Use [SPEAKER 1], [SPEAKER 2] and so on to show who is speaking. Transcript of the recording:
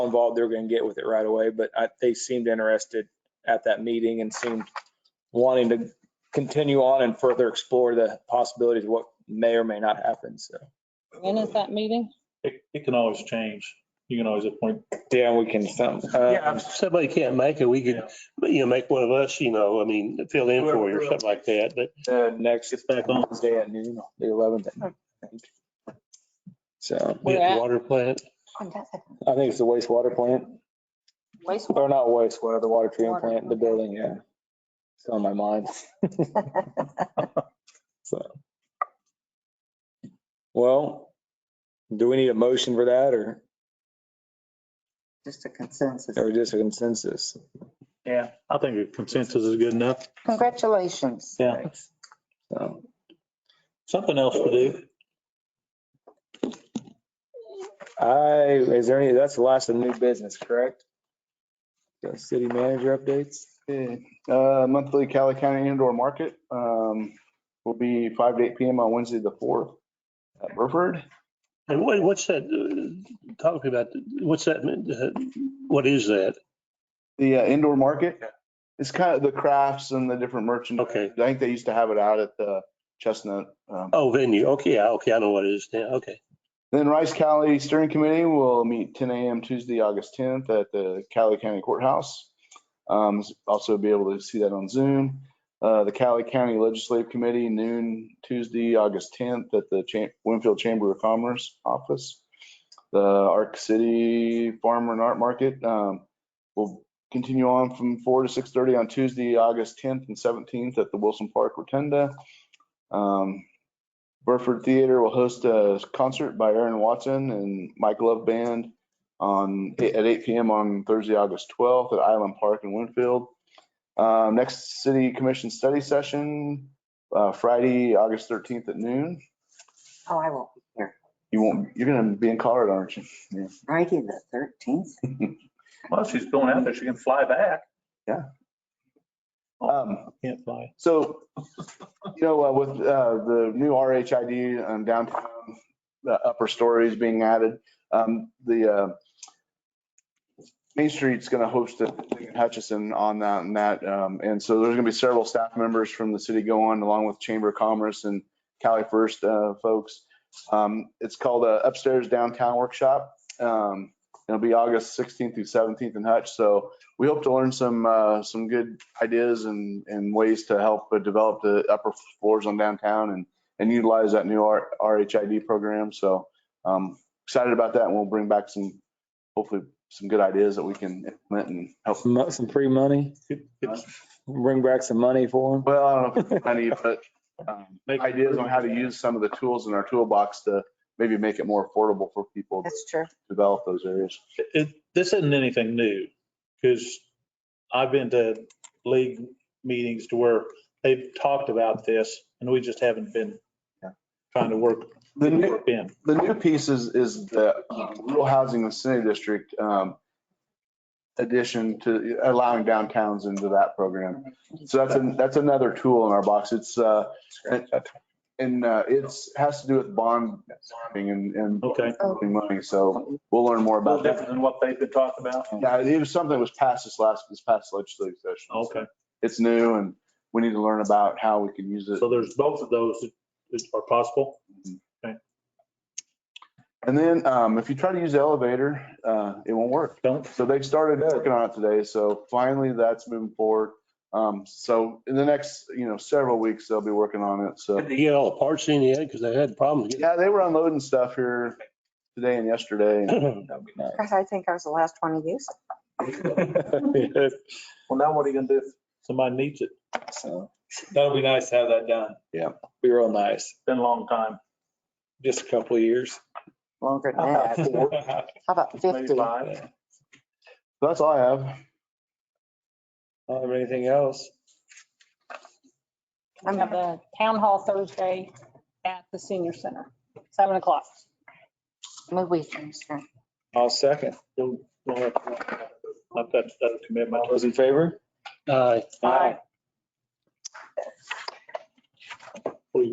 [SPEAKER 1] involved, they're going to get with it right away. But I, they seemed interested at that meeting and seemed wanting to continue on and further explore the possibilities of what may or may not happen. So,
[SPEAKER 2] When is that meeting?
[SPEAKER 3] It, it can always change. You can always appoint.
[SPEAKER 1] yeah, we can, some-
[SPEAKER 4] Yeah,
[SPEAKER 1] uh,
[SPEAKER 4] if somebody can't make it, we could, you know, make one of us, you know, I mean, fill in for you or something like that, but
[SPEAKER 1] the next
[SPEAKER 3] It's back on.
[SPEAKER 1] Wednesday at noon, the 11th. at noon, I think. So
[SPEAKER 4] we
[SPEAKER 2] Where
[SPEAKER 4] have
[SPEAKER 2] at?
[SPEAKER 4] the water plant.
[SPEAKER 1] I think it's the wastewater plant,
[SPEAKER 2] Wastewater.
[SPEAKER 1] or not wastewater, the water treatment plant, the building, yeah. It's on my mind. So. Well, do we need a motion for that or,
[SPEAKER 5] Just a consensus.
[SPEAKER 1] or just a consensus?
[SPEAKER 3] Yeah. I think a consensus is good enough.
[SPEAKER 5] Congratulations.
[SPEAKER 3] Yeah.
[SPEAKER 1] So,
[SPEAKER 3] Something else to do.
[SPEAKER 1] I, is there any, that's the last of new business, correct? The city manager updates?
[SPEAKER 6] Okay, uh, Monthly Cali County Indoor Market um, will be five to eight PM on Wednesday, the fourth at Burford.
[SPEAKER 4] And what, what's that, uh, talk about, what's that, uh, what is that?
[SPEAKER 6] The uh, indoor market, it's kind of the crafts and the different merchandise.
[SPEAKER 4] Okay.
[SPEAKER 6] I think they used to have it out at the Chestnut. um,
[SPEAKER 4] Oh, venue, okay, yeah, okay, I know what it is now, okay.
[SPEAKER 6] Then Rice County Steering Committee will meet ten AM Tuesday, August tenth at the Cali County Courthouse. Um, also be able to see that on Zoom. Uh, the Cali County Legislative Committee noon Tuesday, August tenth at the Cha- Winfield Chamber of Commerce office. The Arc City Farmer and Art Market, um, will continue on from four to six thirty on Tuesday, August tenth and seventeenth at the Wilson Park Rotunda. Um, Burford Theater will host a concert by Aaron Watson and Mike Love Band on, at 8 PM on Thursday, August 12th at Island Park in Winfield. Um, Next city commission study session, uh, Friday, August 13th at noon.
[SPEAKER 5] Oh, I won't be here.
[SPEAKER 6] You won't, you're going to be in Colorado, aren't you?
[SPEAKER 5] Friday the thirteenth.
[SPEAKER 3] Well, she's going out there. She can fly back.
[SPEAKER 6] Um,
[SPEAKER 3] Can't fly.
[SPEAKER 6] So, you know, uh, with uh, the new RHID um, downtown, the upper stories being added, um, the uh, Main Street's going to host a thing in Hutchison on that and that. um, And so there's going to be several staff members from the city going, along with Chamber of Commerce and Cali First uh, folks. Um, It's called a Upstairs Downtown Workshop. Um, It'll be August 16th through 17th in Hutch. So we hope to learn some, uh, some good ideas and, and ways to help uh, develop the upper floors on downtown and, and utilize that new R- RHID program. So um, excited about that and we'll bring back some, hopefully some good ideas that we can implement and help.
[SPEAKER 1] Some, mo- some free money,
[SPEAKER 3] It- it's-
[SPEAKER 1] bring back some money for them.
[SPEAKER 6] Well, I don't know if it's money, but um,
[SPEAKER 3] Make-
[SPEAKER 6] ideas on how to use some of the tools in our toolbox to maybe make it more affordable for people to
[SPEAKER 5] That's true.
[SPEAKER 6] develop those areas.
[SPEAKER 3] it- This isn't anything new because I've been to league meetings to where they've talked about this and we just haven't been trying to work,
[SPEAKER 6] The new,
[SPEAKER 3] work in.
[SPEAKER 6] the new piece is, is the uh, rural housing incentive district um, addition to allowing downtowns into that program. So that's, an- that's another tool in our box. It's, uh, and uh, it's, has to do with bond bonding and, and
[SPEAKER 3] Okay.
[SPEAKER 5] Oh,
[SPEAKER 6] bonding money. So we'll learn more
[SPEAKER 3] A little
[SPEAKER 6] about
[SPEAKER 3] different
[SPEAKER 6] that.
[SPEAKER 3] than what they've been talking about.
[SPEAKER 6] Yeah, it was something that was passed this last, this past legislative session. So
[SPEAKER 3] Okay.
[SPEAKER 6] It's new and we need to learn about how we can use it.
[SPEAKER 3] So there's both of those that- that are possible.
[SPEAKER 6] And then um, if you try to use the elevator, uh, it won't work.
[SPEAKER 3] Don't,
[SPEAKER 6] So they've started working on it today, so finally that's moving forward. Um, so in the next, you know, several weeks, they'll be working on it, so.
[SPEAKER 4] Did they get all the parts in yet? Because they had problems. getting-
[SPEAKER 6] Yeah, they were unloading stuff here today and yesterday.
[SPEAKER 1] That'd be
[SPEAKER 5] Gosh, I think I was the last one to use.
[SPEAKER 1] nice.
[SPEAKER 3] well, now what are you gonna do if somebody needs it?
[SPEAKER 1] So, That'll be nice to have that done.
[SPEAKER 6] Yeah.
[SPEAKER 1] Be real nice,
[SPEAKER 3] Been a long time.
[SPEAKER 1] just a couple of years.
[SPEAKER 5] Longer than that. How about
[SPEAKER 3] Maybe
[SPEAKER 5] fifty?
[SPEAKER 3] five.
[SPEAKER 6] That's all I have.
[SPEAKER 1] I don't have anything else.
[SPEAKER 2] I'm at the town hall Thursday at the senior center, seven o'clock.
[SPEAKER 5] Move we finish here.
[SPEAKER 1] I'll second.
[SPEAKER 3] Don't- don't have to- I've got other commitments.
[SPEAKER 4] Uh,
[SPEAKER 1] Those in favor?
[SPEAKER 4] Aye.
[SPEAKER 2] Aye.